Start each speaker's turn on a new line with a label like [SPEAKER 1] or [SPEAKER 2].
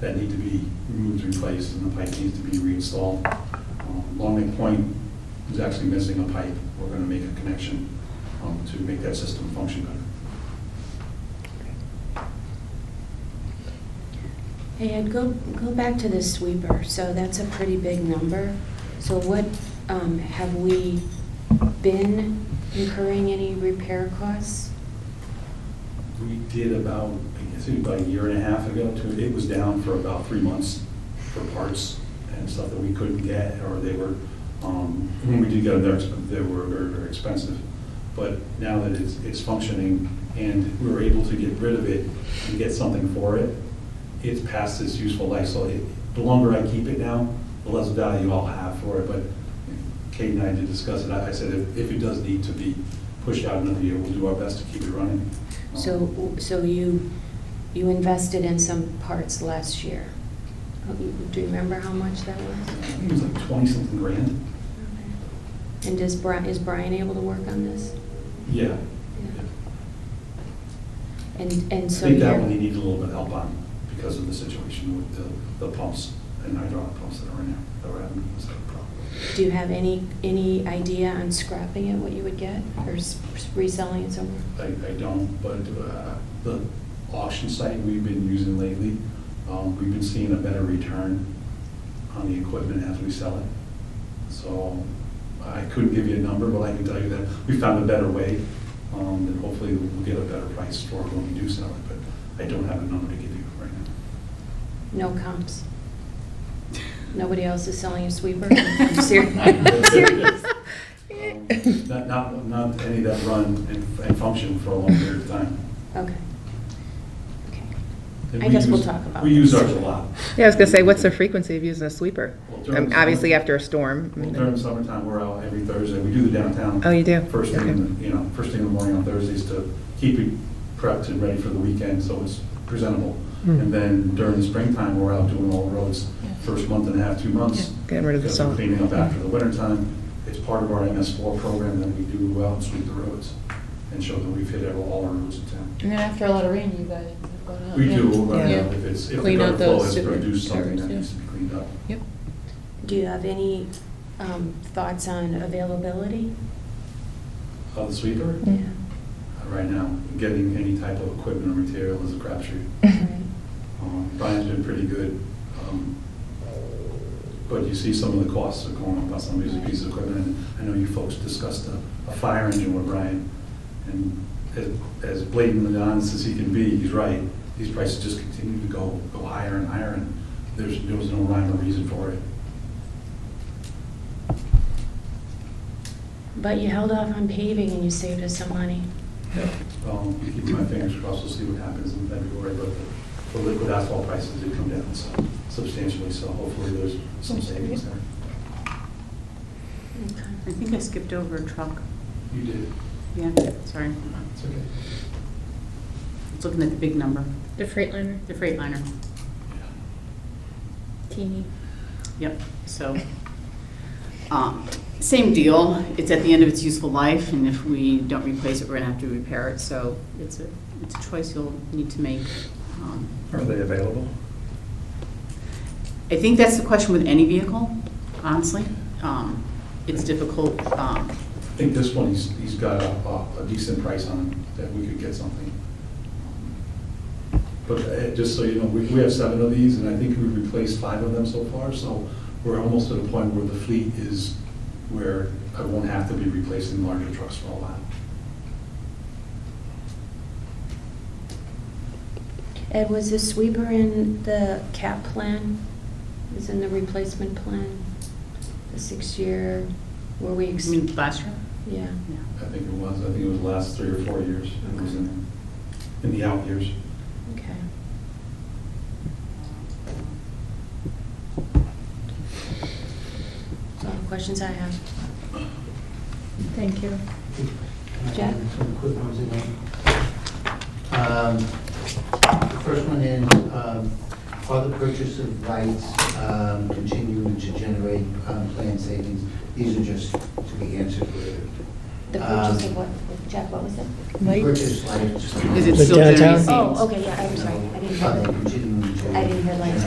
[SPEAKER 1] that need to be removed, replaced, and the pipe needs to be reinstalled. Um, Long Lake Point is actually missing a pipe. We're going to make a connection um, to make that system function better.
[SPEAKER 2] And go, go back to the sweeper, so that's a pretty big number. So what, um, have we been incurring any repair costs?
[SPEAKER 1] We did about, I guess, it was about a year and a half ago, two, it was down for about three months for parts and stuff that we couldn't get, or they were, um, when we did get them, they were- they were very, very expensive. But now that it's, it's functioning and we were able to get rid of it and get something for it, it's past its useful life, so it, the longer I keep it now, the less value I'll have for it, but Kate and I did discuss it, I I said if, if it does need to be pushed out another year, we'll do our best to keep it running. Um,
[SPEAKER 2] So, so you, you invested in some parts last year. Do you remember how much that
[SPEAKER 1] I
[SPEAKER 2] was?
[SPEAKER 1] think it was like twenty something grand.
[SPEAKER 2] And does Brian, is Brian able to work on this?
[SPEAKER 1] Yeah.
[SPEAKER 2] And,
[SPEAKER 1] I
[SPEAKER 2] and so
[SPEAKER 1] think
[SPEAKER 2] you're.
[SPEAKER 1] that one he needed a little bit of help on because of the situation with the, the pumps and hydraulic pumps that are in there that were having a problem.
[SPEAKER 2] Do you have any, any idea on scrapping it, what you would get, or s- reselling it somewhere?
[SPEAKER 1] I, I don't, but uh, the auction site we've been using lately, um, we've been seeing a better return on the equipment as we sell it. So I couldn't give you a number, but I can tell you that we found a better way, um, and hopefully we'll get a better price for it when we do sell it, but I don't have a number to give you right now.
[SPEAKER 2] No comps? Nobody else is selling a sweeper? I'm serious.
[SPEAKER 1] I'm serious. Um,
[SPEAKER 2] Okay,
[SPEAKER 1] Not, not, not any that run and, and function for a long period of time.
[SPEAKER 2] okay.
[SPEAKER 1] And
[SPEAKER 2] I
[SPEAKER 1] we
[SPEAKER 2] guess we'll
[SPEAKER 1] use-
[SPEAKER 2] talk about
[SPEAKER 1] We use
[SPEAKER 2] this.
[SPEAKER 1] ours a lot.
[SPEAKER 3] Yeah, I was gonna say, what's the frequency of using a sweeper?
[SPEAKER 1] Well, during
[SPEAKER 3] Um,
[SPEAKER 1] the
[SPEAKER 3] Obviously,
[SPEAKER 1] summer-
[SPEAKER 3] after a storm. I
[SPEAKER 1] Well,
[SPEAKER 3] mean,
[SPEAKER 1] During the summertime, we're out every Thursday. We do the downtown.
[SPEAKER 3] Oh, you do?
[SPEAKER 1] First thing, in the- you know, first thing in the morning on Thursdays to keep it prepped and ready for the weekend, so it's presentable.
[SPEAKER 3] Hmm.
[SPEAKER 1] And then during the springtime, we're out doing all the roads, first month and a half, two months.
[SPEAKER 3] Getting rid of the
[SPEAKER 1] because we're
[SPEAKER 3] salt.
[SPEAKER 1] Cleaning up after the wintertime. It's part of our MS4 program that we do go out and sweep the roads and show that we've hit all our roads in town.
[SPEAKER 4] And then after a lot of rain, you guys have gone out.
[SPEAKER 1] We
[SPEAKER 4] Oh, yeah.
[SPEAKER 1] do, uh,
[SPEAKER 3] Yeah.
[SPEAKER 1] if it's, if the
[SPEAKER 4] Clean
[SPEAKER 1] gutter
[SPEAKER 4] out
[SPEAKER 1] flow
[SPEAKER 4] those
[SPEAKER 1] has
[SPEAKER 4] super
[SPEAKER 1] produced something that
[SPEAKER 4] gutters, yeah.
[SPEAKER 1] needs to be cleaned up.
[SPEAKER 4] Yep.
[SPEAKER 2] Do you have any um, thoughts on availability?
[SPEAKER 1] Uh, the sweeper,
[SPEAKER 2] Yeah.
[SPEAKER 1] uh, right now, getting any type of equipment or material is a crapshoot. Um, Brian's been pretty good, um, but you see some of the costs are going up on some of these pieces of equipment. And I know you folks discussed a, a fire engine with Brian, and as- as blatant and honest as he can be, he's right. These prices just continue to go, go higher and higher, and there's, there was no rhyme or reason for it.
[SPEAKER 2] But you held off on paving and you saved us some money.
[SPEAKER 1] Um, keeping my fingers crossed, we'll see what happens in February, but the- the liquid asphalt prices did come down so substantially, so hopefully there's some savings there.
[SPEAKER 5] I think I skipped over a truck.
[SPEAKER 1] You did.
[SPEAKER 5] Yeah, sorry.
[SPEAKER 1] It's okay.
[SPEAKER 5] It's looking at the big number,
[SPEAKER 6] The Freightliner,
[SPEAKER 5] the Freightliner.
[SPEAKER 6] teeny.
[SPEAKER 5] Yep, so, um, same deal. It's at the end of its useful life, and if we don't replace it, we're gonna have to repair it. So it's a, it's a choice you'll need to make. Um,
[SPEAKER 1] Are they available?
[SPEAKER 5] I think that's the question with any vehicle, honestly. Um, It's difficult, um,
[SPEAKER 1] I think this one, he's, he's got a, a- a decent price on it, that we could get something. But uh, just so you know, we, we have seven of these, and I think we've replaced five of them so far, so we're almost at a point where the fleet is where I won't have to be replacing larger trucks for a while.
[SPEAKER 2] Ed, was the sweeper in the cap plan? Is in the replacement plan? The six-year, were we,
[SPEAKER 5] I
[SPEAKER 2] ex-
[SPEAKER 1] Mm.
[SPEAKER 5] mean, last year,
[SPEAKER 2] yeah.
[SPEAKER 5] yeah.
[SPEAKER 1] I think it was, I think it was the last three or four years, it was in, in the out years.
[SPEAKER 2] Okay. That's all the questions I have.
[SPEAKER 6] Thank you.
[SPEAKER 2] Jeff?
[SPEAKER 7] Some quick ones in there. Um, The first one is, um, are the purchase of lights um, continuing to generate um, planned savings? These are just to be answered later.
[SPEAKER 2] The purchase
[SPEAKER 7] Um,
[SPEAKER 2] of what, Jeff, what was it?
[SPEAKER 7] Purchase lights.
[SPEAKER 5] Is it
[SPEAKER 8] The
[SPEAKER 5] still generating
[SPEAKER 8] downtown?
[SPEAKER 5] savings?
[SPEAKER 2] Oh, okay, yeah, I'm sorry, I didn't
[SPEAKER 7] Are
[SPEAKER 2] have
[SPEAKER 7] they
[SPEAKER 2] it.
[SPEAKER 7] continuing to
[SPEAKER 2] I didn't hear lights.